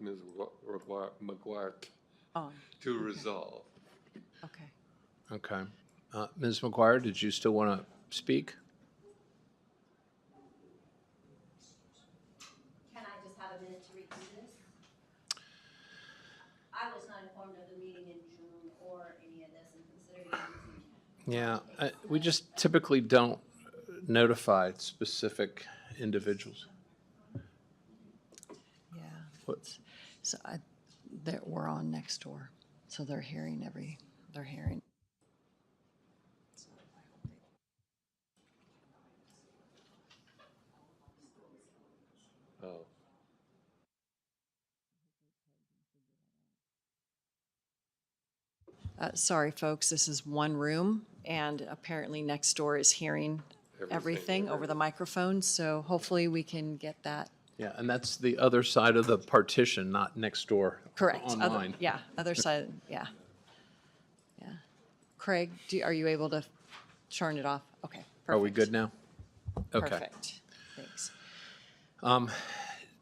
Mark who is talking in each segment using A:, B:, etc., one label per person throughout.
A: Ms. Rebar- McGuire
B: on,
A: to resolve.
B: okay.
C: Okay. Uh, Ms. McGuire, did you still want to speak?
D: Can I just have a minute to redo this? I was not informed of the meeting in June or any of this and considering it was in
C: Yeah, I, we just typically don't notify specific individuals.
B: Yeah,
C: What-
B: so I, that, we're on next door, so they're hearing every, they're hearing.
A: Oh,
B: Uh, sorry, folks, this is one room, and apparently next door is hearing
A: Everything,
B: everything over the microphone, so hopefully we can get that
C: Yeah, and that's the other side of the partition, not next door.
B: correct. Other-
C: Online.
B: Yeah, other side, yeah. Yeah. Craig, do, are you able to turn it off? Okay.
C: Are we
B: perfect.
C: good now? Okay.
B: Perfect, thanks.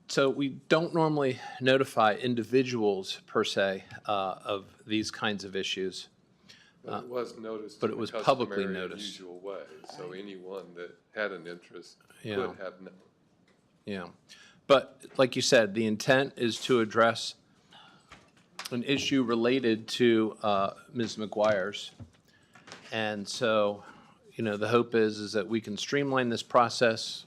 C: So we don't normally notify individuals per se uh, of these kinds of issues.
A: But it was noticed.
C: Uh, but
A: in
C: it
A: the
C: was publicly
A: customary and
C: noticed.
A: Usual way, so anyone that had an interest
C: Yeah.
A: would have known.
C: Yeah. But like you said, the intent is to address an issue related to uh, Ms. McGuire's. And so, you know, the hope is, is that we can streamline this process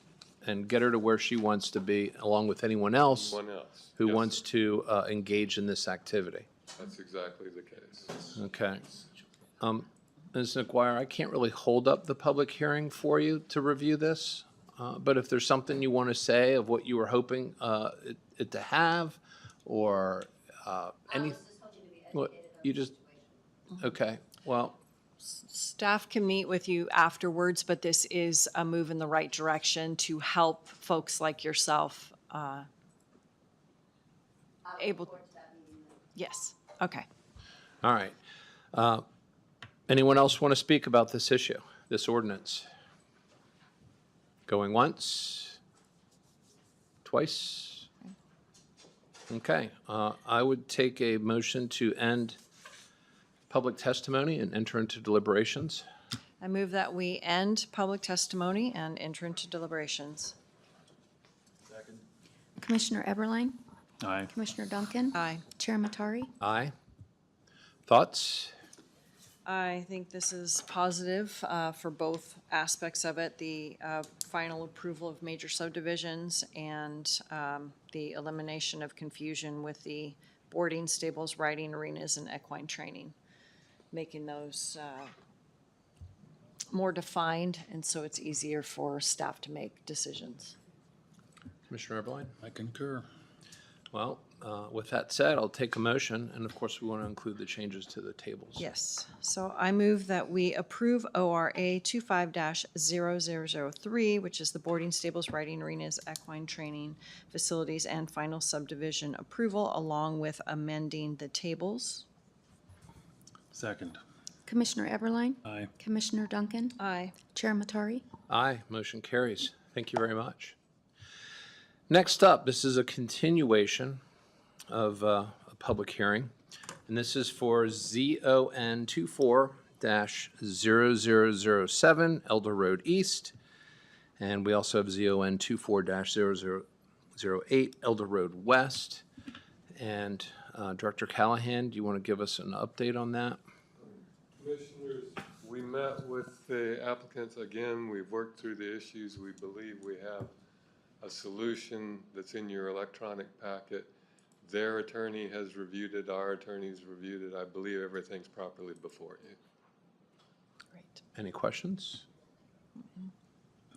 C: and get her to where she wants to be, along with anyone else
A: One else.
C: who
A: Yes,
C: wants to uh, engage in this activity.
A: That's exactly the case.
C: Okay. Um, Ms. McGuire, I can't really hold up the public hearing for you to review this, uh, but if there's something you want to say of what you were hoping uh, it- it to have, or uh, any,
D: I was just hoping to be
C: what,
D: educated on
C: you
D: the
C: just,
D: situation.
C: okay, well,
B: Staff can meet with you afterwards, but this is a move in the right direction to help folks like yourself. uh,
D: I look
B: Able-
D: forward to that meeting.
B: Yes, okay.
C: all right. Uh, Anyone else want to speak about this issue, this ordinance? Going once? Twice? Okay, uh, I would take a motion to end public testimony and enter into deliberations.
B: I move that we end public testimony and enter into deliberations.
E: Commissioner Eberlein,
F: Aye.
E: Commissioner Duncan,
B: Aye.
E: Chair Matari.
C: Aye. Thoughts?
B: I think this is positive uh, for both aspects of it, the uh, final approval of major subdivisions and um, the elimination of confusion with the boarding, stables, riding arenas, and equine training, making those uh, more defined, and so it's easier for staff to make decisions.
C: Commissioner Eberline?
F: I concur.
C: Well, uh, with that said, I'll take a motion, and of course, we want to include the changes to the tables.
B: Yes, so I move that we approve ORA 25-0003, which is the boarding stables, riding arenas, equine training facilities, and final subdivision approval, along with amending the tables.
F: Second.
E: Commissioner Eberlein,
F: Aye.
E: Commissioner Duncan,
B: Aye.
E: Chair Matari.
C: Aye, motion carries. Thank you very much. Next up, this is a continuation of uh, a public hearing, and this is for ZON 24-0007 Elder Road East, and we also have ZON 24-0008 Elder Road West. And uh, Director Callahan, do you want to give us an update on that?
A: Commissioners, we met with the applicants again. We've worked through the issues. We believe we have a solution that's in your electronic packet. Their attorney has reviewed it, our attorney's reviewed it. I believe everything's properly before you.
B: Great.
C: Any questions?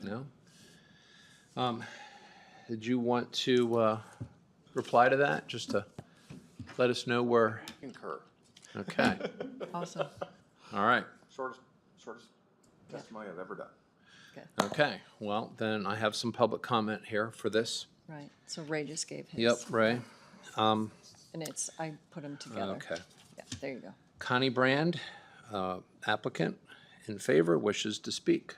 C: No? Um, Did you want to uh, reply to that, just to let us know where?
G: Concur.
C: Okay,
B: Awesome,
C: all right,
G: Shortest, shortest testimony I've ever done.
C: okay. Well, then I have some public comment here for this.
B: right, so Ray just gave his.
C: Yep, Ray. Um,
B: And it's, I put them together.
C: Okay.
B: Yeah, there you go.
C: Connie Brand, uh, applicant, in favor, wishes to speak.